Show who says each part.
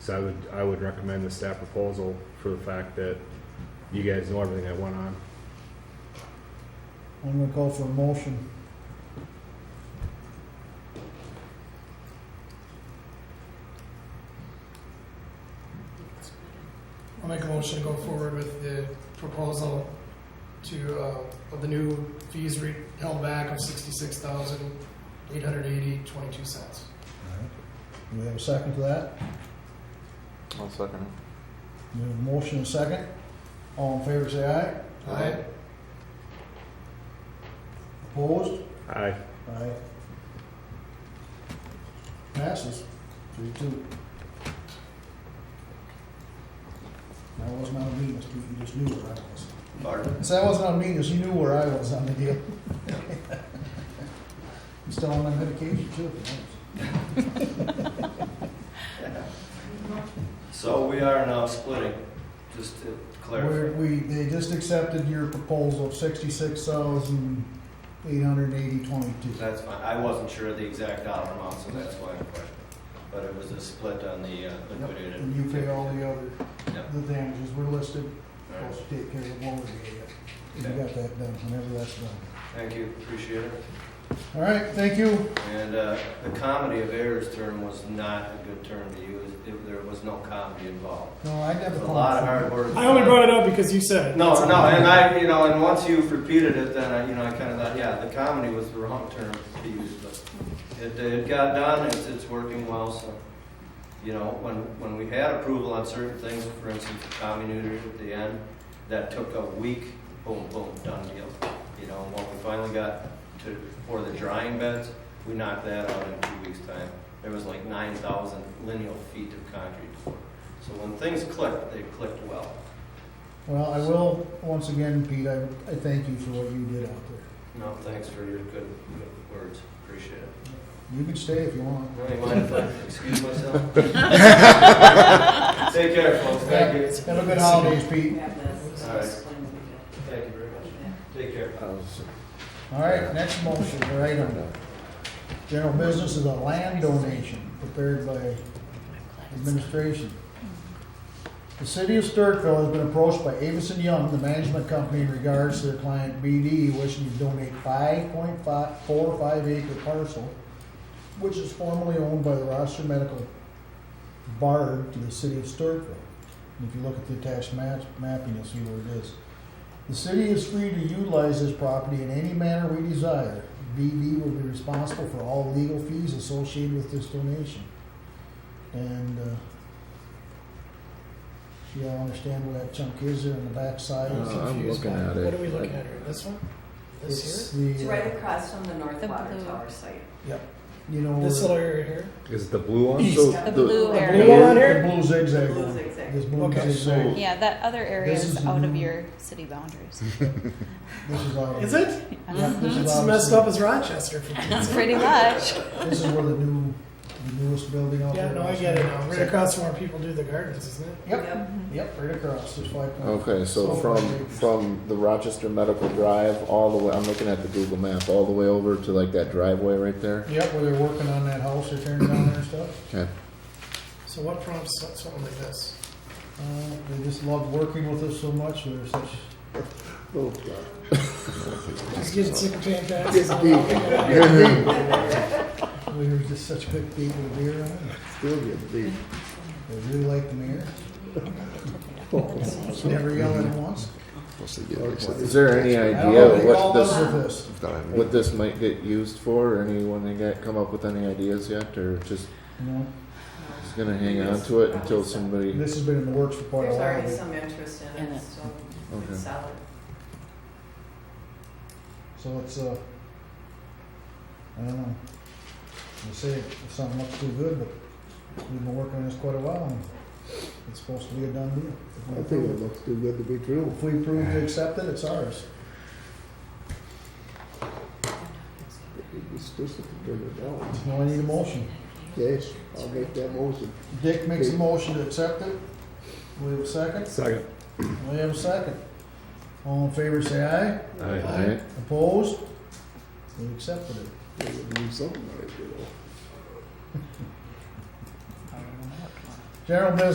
Speaker 1: So I would, I would recommend the staff proposal for the fact that you guys know everything that went on.
Speaker 2: I'm gonna call for a motion.
Speaker 3: I'll make a motion to go forward with the proposal to, uh, of the new fees re- held back of sixty-six thousand, eight hundred eighty, twenty-two cents.
Speaker 2: Do we have a second to that?
Speaker 4: I'll second
Speaker 2: We have a motion and a second. All in favor, say aye.
Speaker 3: Aye.
Speaker 2: Opposed?
Speaker 1: Aye.
Speaker 2: Aye. Passes, three, two. That wasn't on me, Mr. you just knew where I was. So that wasn't on me, because you knew where I was on the deal. I'm still on my medication too, if you notice.
Speaker 5: So we are now splitting, just to
Speaker 2: We're-
Speaker 5: clarify.
Speaker 2: We, they just accepted your proposal of sixty-six thousand eight hundred eighty twenty-two.
Speaker 5: That's fine, I wasn't sure of the exact dollar amount, so that's why I questioned. But it was a split on the uh, liquidated.
Speaker 2: And you pay all the other,
Speaker 5: Yep.
Speaker 2: the damages were listed,
Speaker 5: All right.
Speaker 2: plus take care of what we gave you. You
Speaker 5: Okay.
Speaker 2: got that done, whenever that's done.
Speaker 5: Thank you, appreciate it.
Speaker 2: All right, thank you.
Speaker 5: And uh, the comedy of errors term was not a good term to use, It- there was no comedy involved.
Speaker 2: No, I
Speaker 5: It
Speaker 2: never
Speaker 5: was
Speaker 2: thought.
Speaker 5: A lot of hard work.
Speaker 3: I only brought it up because you said it.
Speaker 5: No, no, and I, you know, and once you've repeated it, then I, you know, I kind of thought, yeah, the comedy was the wrong term to use, but it, it got done, it's, it's working well, so. You know, when, when we had approval on certain things, for instance, the common neuter at the end, that took a week, boom, boom, done deal. You know, and when we finally got to, for the drying beds, we knocked that out in two weeks' time. There was like nine thousand lineal feet of concrete poured. So when things clicked, they clicked well.
Speaker 2: Well, I will, once again, Pete, I, I thank you for what you did out there.
Speaker 5: No, thanks for your good, good words, appreciate it.
Speaker 2: You can stay if you want.
Speaker 5: Really mind if I excuse myself? Take care, folks, thank you.
Speaker 2: Have a good holidays, Pete.
Speaker 5: Thank you very much. Take care.
Speaker 4: it.
Speaker 2: All right, next motion, or item. General business is a land donation prepared by administration. The city of Sturtville has been approached by Avison Young, the management company, in regards to their client BD wishing to donate five point five, four five acre parcel, which is formerly owned by the Rochester Medical Bard to the city of Sturtville. And if you look at the attached map, mapping, you'll see where it is. The city is free to utilize this property in any manner we desire. BB will be responsible for all legal fees associated with this donation. And, uh, you all understand where that chunk is there on the backside?
Speaker 4: Uh, I'm looking at it.
Speaker 3: What are we looking at here? This one? This
Speaker 2: It's the,
Speaker 6: It's
Speaker 2: uh,
Speaker 6: right across from the North
Speaker 7: The
Speaker 6: Water
Speaker 7: blue.
Speaker 6: Tower site.
Speaker 2: You know.
Speaker 3: here? This
Speaker 2: where-
Speaker 3: little area here?
Speaker 1: Is it the blue one?
Speaker 3: East.
Speaker 4: So
Speaker 7: The
Speaker 4: the-
Speaker 7: blue
Speaker 6: The
Speaker 2: The
Speaker 3: blue
Speaker 7: area.
Speaker 3: one on here?
Speaker 2: the blue zigzag
Speaker 6: Blue
Speaker 2: one.
Speaker 6: zigzag.
Speaker 2: This blue
Speaker 3: Okay,
Speaker 2: zigzag.
Speaker 7: Yeah, that other area
Speaker 2: This
Speaker 7: is
Speaker 2: is
Speaker 7: out of
Speaker 2: new.
Speaker 7: your city boundaries.
Speaker 2: This is out of-
Speaker 3: Is it?
Speaker 2: Yeah, this is
Speaker 3: It's
Speaker 2: out
Speaker 3: as
Speaker 2: of-
Speaker 3: messed up as Rochester. for-
Speaker 7: That's pretty much.
Speaker 2: This is where the new, the newest building out there.
Speaker 3: Yeah, no, I
Speaker 2: is.
Speaker 3: get it now. Right across from where people do the gardens, isn't it?
Speaker 2: Yep, yep, right across, uh, there's five. point-
Speaker 4: Okay, so from, from the Rochester Medical Drive all the way, I'm looking at the Google map, all the way over to like that driveway right there.
Speaker 2: Yep, where they're working on that house, they're tearing down there and stuff.
Speaker 4: Okay.
Speaker 3: So what prompts so- something like this?
Speaker 2: Uh, They just love working with us so much, they're such,
Speaker 3: Just getting sick of paying taxes.
Speaker 2: they're just such good people to be around.
Speaker 4: Still get beat.
Speaker 2: They really like the mayor. Never yell at him once.
Speaker 4: Is there any
Speaker 2: I don't know
Speaker 4: idea
Speaker 2: if they
Speaker 4: what
Speaker 2: call us
Speaker 4: this,
Speaker 2: with this.
Speaker 4: what this might get used for? or Anyone they got come up with any ideas yet, or just,
Speaker 2: No,
Speaker 4: just gonna hang on to it until somebody?
Speaker 2: This has been in the works for quite a
Speaker 6: There's already
Speaker 2: while,
Speaker 6: some interest in
Speaker 7: In
Speaker 6: it,
Speaker 7: it.
Speaker 6: so
Speaker 4: Okay.
Speaker 6: it's solid.
Speaker 2: so it's, uh, I don't know. They say if something looks too good, but we've been working on this quite a while, and it's supposed to be a done deal. If we approve
Speaker 4: looks too good to be true.
Speaker 2: it- If we approve to accept it, it's ours.
Speaker 4: It's just a
Speaker 2: Now I need a motion.
Speaker 4: Yes, I'll make that motion.
Speaker 2: Dick makes a motion to accept it. We have a second?
Speaker 1: Second.
Speaker 2: We have a second. All in favor, say aye.
Speaker 1: Aye.
Speaker 4: Alright,
Speaker 2: Opposed? We accepted it.
Speaker 4: do something like it.
Speaker 2: General business